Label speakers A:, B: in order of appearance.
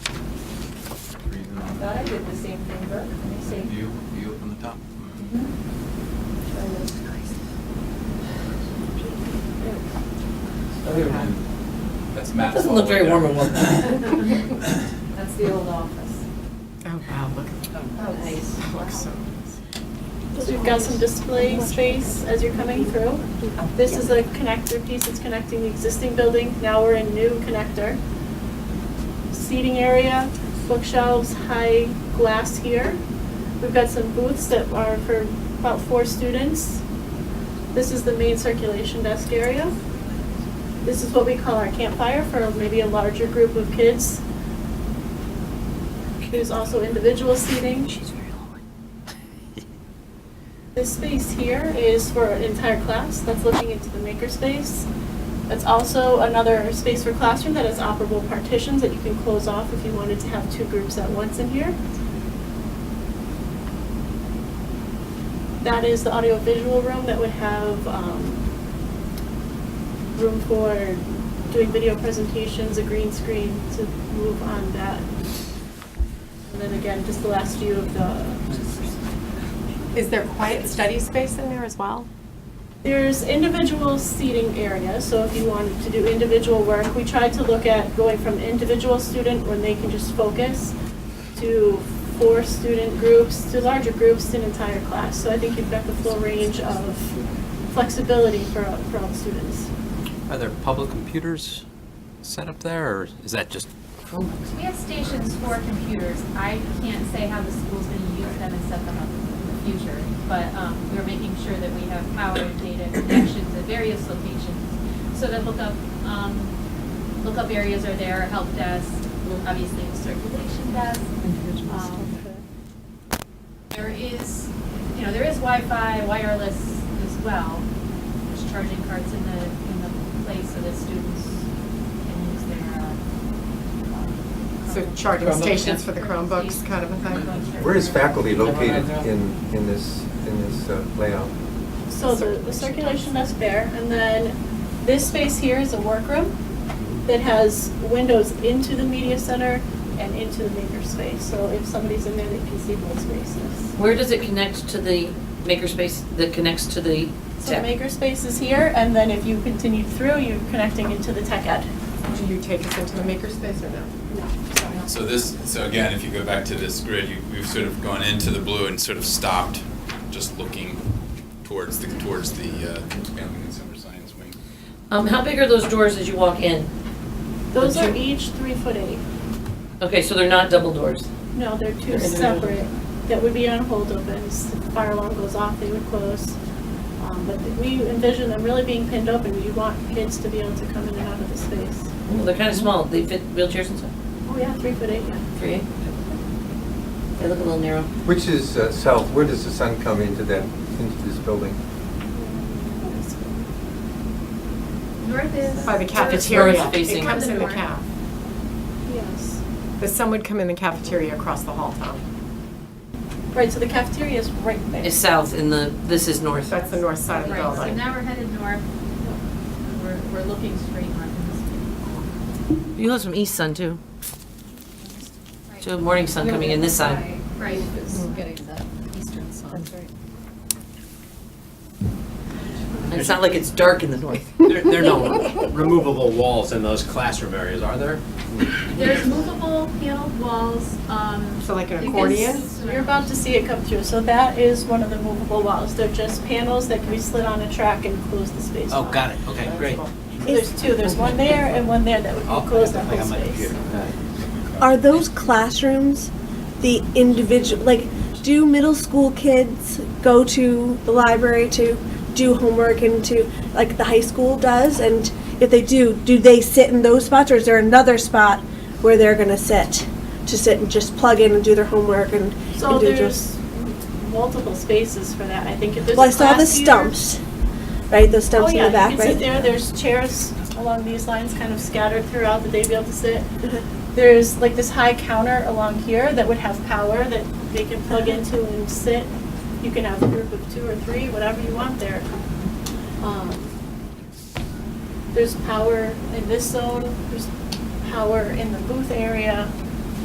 A: Thought I did the same thing, but let me see.
B: You, you from the top.
A: Mhm.
C: Mm-hmm.
A: Try this.
B: Other than- That's Matt's.
D: Doesn't look
B: all the way
D: very warm
B: down.
D: and welcome.
A: That's the old office.
E: Oh, wow, look at
A: Oh, nice.
E: that.
A: Wow.
E: Looks so
F: Because we've got some display space as you're coming through. This is a connector piece that's connecting the existing building, now we're in new connector. Seating area, bookshelves, high glass here. We've got some booths that are for about four students. This is the main circulation desk area. This is what we call our campfire for maybe a larger group of kids. There's also individual seating. This space here is for an entire class that's looking into the makerspace. That's also another space for classroom that has operable partitions that you can close off if you wanted to have two groups at once in here. That is the audiovisual room that would have um, room for doing video presentations, a green screen to move on that. And then again, just the last view of the
E: Is there quiet study space in there as well?
F: There's individual seating areas, so if you wanted to do individual work, we tried to look at going from individual student when they can just focus to four student groups, to larger groups, to an entire class. So I think you've got the full range of flexibility for, for all students.
B: Are there public computers set up there, or is that just,
C: We have stations for computers. I can't say how the school's gonna use them and set them up in the future, but um, we're making sure that we have power and data connections at various locations. So that lookup, um, lookup areas are there, help desk, obviously the circulation desk. Um, There is, you know, there is Wi-Fi, wireless as well. There's charging carts in the, in the place so that students can use their, uh, um,
E: So
C: Chromebook.
E: charging
G: Chromebooks,
E: stations
G: yeah.
E: for the Chromebooks kind of a thing?
C: Chromebooks or-
G: Where is faculty located in, in this, in this uh, layout?
F: So the, the circulation desk there, and then this space here is a workroom that has windows into the media center and into the maker space. So if somebody's in there, they can see both spaces.
D: Where does it connect to the makerspace that connects to the
F: So
D: tech?
F: maker space is here, and then if you continue through, you're connecting into the tech ed.
E: Do you take us into the makerspace or no?
F: No, sorry.
B: so this, so again, if you go back to this grid, you, you've sort of gone into the blue and sort of stopped, just looking towards the, towards the, uh, expanding consumer science wing.
D: Um, how big are those doors as you walk in?
F: Those
D: The
F: are
D: two-
F: each three foot eight.
D: Okay, so they're not double doors.
F: No, they're two
D: They're individual.
F: separate, that would be on hold opens. If the fire alarm goes off, they would close. Um, But we envision them really being pinned open, you want kids to be able to come in and out of the space.
D: Well, they're kind of small. They fit wheelchairs and stuff.
F: Oh, yeah, three foot eight, yeah.
D: Three. They look a little narrow.
G: Which is uh, south, where does the sun come into that, into this building?
C: North is.
E: By the cafeteria.
D: North facing.
E: It comes in the caf.
F: Yes.
E: The sun would come in the cafeteria across the hall, Tom.
F: Right, so the cafeteria is right there.
D: It's south in the, this is north.
E: That's the north side of the
C: Right, so
E: building.
C: now we're headed north. We're, we're looking straight on
D: You have some east sun too.
C: this. Right.
D: So morning sun coming in this side.
C: Right.
A: Getting the eastern sun. That's right.
D: And It's not like it's dark in the north.
H: There, there are no removable walls in those classroom areas, are there?
C: There's movable paneled walls, um.
E: So like an
C: you can
E: accordion?
C: s-
F: You're about to see it come through, so that is one of the movable walls. They're just panels that can be slid on a track and close the space
H: Oh,
F: off.
H: got it, okay, great.
F: So There's two, there's one there and one there that would
H: I'll-
F: close that
H: I
F: whole
H: got my
F: space.
H: computer.
I: Are those classrooms the individual, like, do middle school kids go to the library to do homework and to, like, the high school does? And if they do, do they sit in those spots or is there another spot where they're gonna sit? To sit and just plug in and do their homework and
F: So
I: individual?
F: there's multiple spaces for that, I think if there's a
I: Well, I saw the
F: class here-
I: stumps, right? Those
F: Oh,
I: stumps in
F: yeah,
I: the
F: you can
I: back,
F: sit
I: right?
F: there, there's chairs along these lines kind of scattered throughout that they'd be able to sit.
I: Mm-hmm.
F: There's like this high counter along here that would have power that they can plug
I: Mm-hmm.
F: into and sit. You can have a group of two or three, whatever you want there. Um, There's power in this zone, there's power in the booth area.